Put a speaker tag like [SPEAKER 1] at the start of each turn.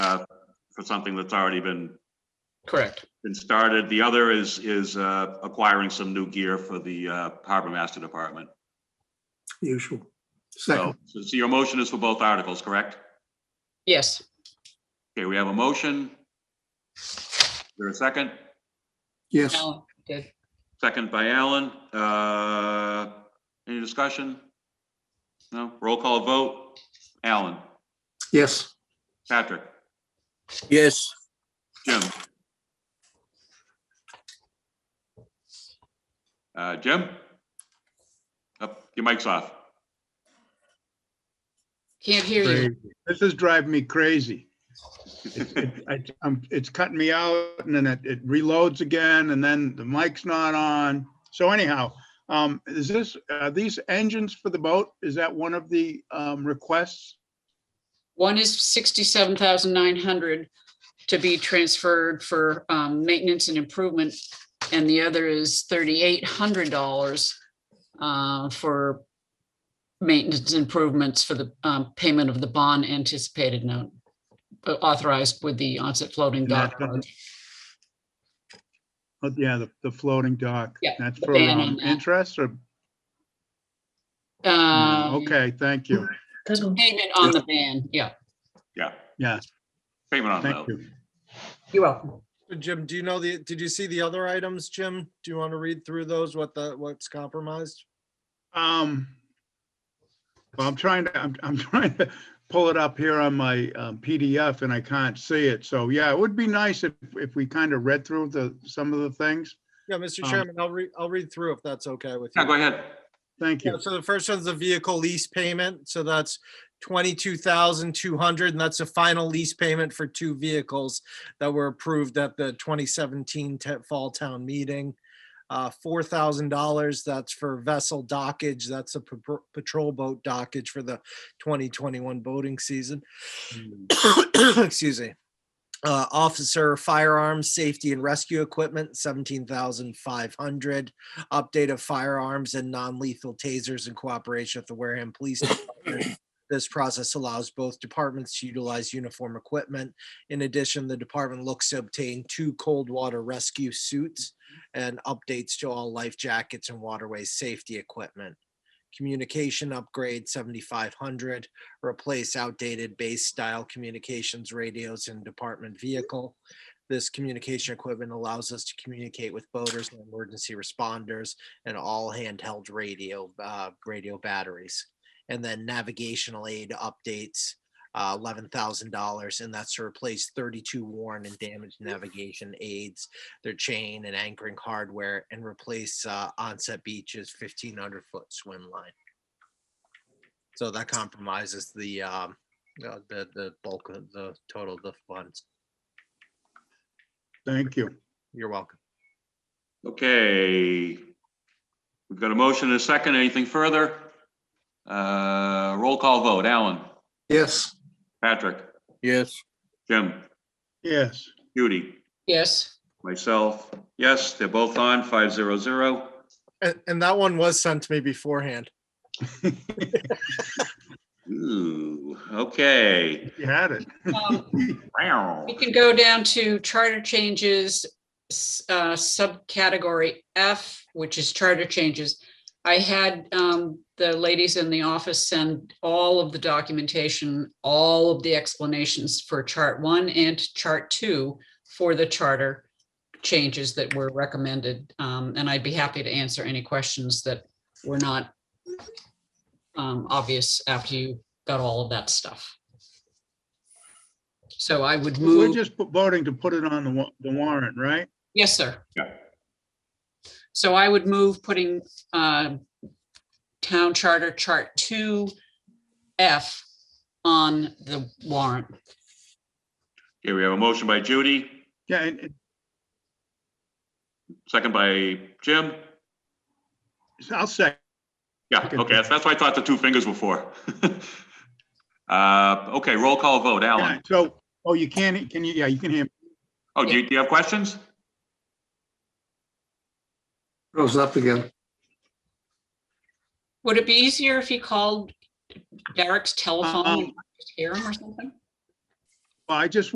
[SPEAKER 1] uh, for something that's already been,
[SPEAKER 2] Correct.
[SPEAKER 1] been started. The other is, is uh, acquiring some new gear for the uh, Harbor Master Department.
[SPEAKER 3] usual.
[SPEAKER 1] So,
[SPEAKER 3] Second,
[SPEAKER 1] so your motion is for both articles, correct?
[SPEAKER 2] Yes.
[SPEAKER 1] Okay, we have a motion. Is there a second?
[SPEAKER 3] yes,
[SPEAKER 2] Alan did.
[SPEAKER 1] Second by Alan. Uh, Any discussion? No? Roll call vote. Alan?
[SPEAKER 3] yes,
[SPEAKER 1] Patrick?
[SPEAKER 4] Yes,
[SPEAKER 1] Jim? Uh, Jim? Up, your mic's off.
[SPEAKER 2] Can't hear you.
[SPEAKER 5] Crazy. This is driving me crazy. It's- it- I, I'm, it's cutting me out and then it, it reloads again and then the mic's not on. So anyhow, um, is this, uh, these engines for the boat, is that one of the, um, requests?
[SPEAKER 2] One is sixty-seven thousand nine hundred to be transferred for um, maintenance and improvement. And the other is thirty-eight hundred dollars uh, for maintenance improvements for the um, payment of the bond anticipated note uh, authorized with the onset floating dock.
[SPEAKER 5] And that doesn't- Oh, yeah, the, the floating dock.
[SPEAKER 2] Yeah,
[SPEAKER 5] That's
[SPEAKER 2] the
[SPEAKER 5] for,
[SPEAKER 2] ban on
[SPEAKER 5] um,
[SPEAKER 2] that.
[SPEAKER 5] interest or,
[SPEAKER 2] Um,
[SPEAKER 5] okay, thank you.
[SPEAKER 2] Payment on the ban, yeah.
[SPEAKER 1] Yeah,
[SPEAKER 5] Yeah,
[SPEAKER 1] payment on
[SPEAKER 5] thank
[SPEAKER 1] that.
[SPEAKER 5] you.
[SPEAKER 2] You're welcome.
[SPEAKER 6] Jim, do you know the, did you see the other items, Jim? Do you want to read through those, what the, what's compromised?
[SPEAKER 5] Um, well, I'm trying to, I'm, I'm trying to pull it up here on my um, PDF and I can't see it. So yeah, it would be nice if, if we kind of read through the, some of the things.
[SPEAKER 6] Yeah, Mr.
[SPEAKER 5] Um,
[SPEAKER 6] Chairman, I'll read, I'll read through if that's okay with you.
[SPEAKER 1] Yeah, go ahead.
[SPEAKER 5] Thank
[SPEAKER 6] Yeah,
[SPEAKER 5] you.
[SPEAKER 6] so the first one's the vehicle lease payment, so that's twenty-two thousand two hundred, and that's the final lease payment for two vehicles that were approved at the twenty seventeen fall town meeting. Uh, four thousand dollars, that's for vessel dockage, that's a pa- patrol boat dockage for the twenty twenty-one boating season. Excuse me. Uh, officer firearms, safety and rescue equipment, seventeen thousand five hundred update of firearms and non-lethal tasers in cooperation with the Wareham Police Department. This process allows both departments to utilize uniform equipment. In addition, the department looks to obtain two cold water rescue suits and updates to all life jackets and waterway safety equipment. Communication upgrade seventy-five hundred, replace outdated base style communications radios in department vehicle. This communication equipment allows us to communicate with boaters and emergency responders and all handheld radio, uh, radio batteries. And then navigational aid updates, uh, eleven thousand dollars, and that's to replace thirty-two worn and damaged navigation aids, their chain and anchoring hardware, and replace, uh, onset beaches fifteen hundred foot swim line. So that compromises the, um, uh, the, the bulk of the total of the funds.
[SPEAKER 5] Thank you.
[SPEAKER 6] You're welcome.
[SPEAKER 1] Okay. We've got a motion and a second. Anything further? Uh, Roll call vote. Alan?
[SPEAKER 3] yes,
[SPEAKER 1] Patrick?
[SPEAKER 4] yes,
[SPEAKER 1] Jim?
[SPEAKER 5] Yes,
[SPEAKER 1] Judy?
[SPEAKER 2] Yes,
[SPEAKER 1] Myself? Yes, they're both on, 500.
[SPEAKER 6] And, and that one was sent to me beforehand.
[SPEAKER 1] Ooh, okay.
[SPEAKER 5] you had it.
[SPEAKER 2] Um,
[SPEAKER 1] Wow.
[SPEAKER 2] we can go down to charter changes, s- uh, subcategory F, which is charter changes. I had, um, the ladies in the office send all of the documentation, all of the explanations for chart one and chart two for the charter changes that were recommended, um, and I'd be happy to answer any questions that were not um, obvious after you got all of that stuff. So I would move.
[SPEAKER 5] We're just voting to put it on the wa- the warrant, right?
[SPEAKER 2] Yes, sir.
[SPEAKER 1] Yeah.
[SPEAKER 2] So I would move putting uh, Town Charter Chart 2F on the warrant.
[SPEAKER 1] Okay, we have a motion by Judy,
[SPEAKER 5] Yeah, and and
[SPEAKER 1] second by Jim.
[SPEAKER 5] I'll say,
[SPEAKER 1] Yeah, okay, that's that's what I thought the two fingers were for. Uh, Okay, roll call vote.
[SPEAKER 5] yeah,
[SPEAKER 1] Alan?
[SPEAKER 5] so, oh, you can't, can you, yeah, you can hear. me.
[SPEAKER 1] Oh, do you do you have questions?
[SPEAKER 3] rose up again.
[SPEAKER 2] Would it be easier if he called Derek's telephone
[SPEAKER 5] Um,
[SPEAKER 2] and just hear him or something?
[SPEAKER 5] Well, I just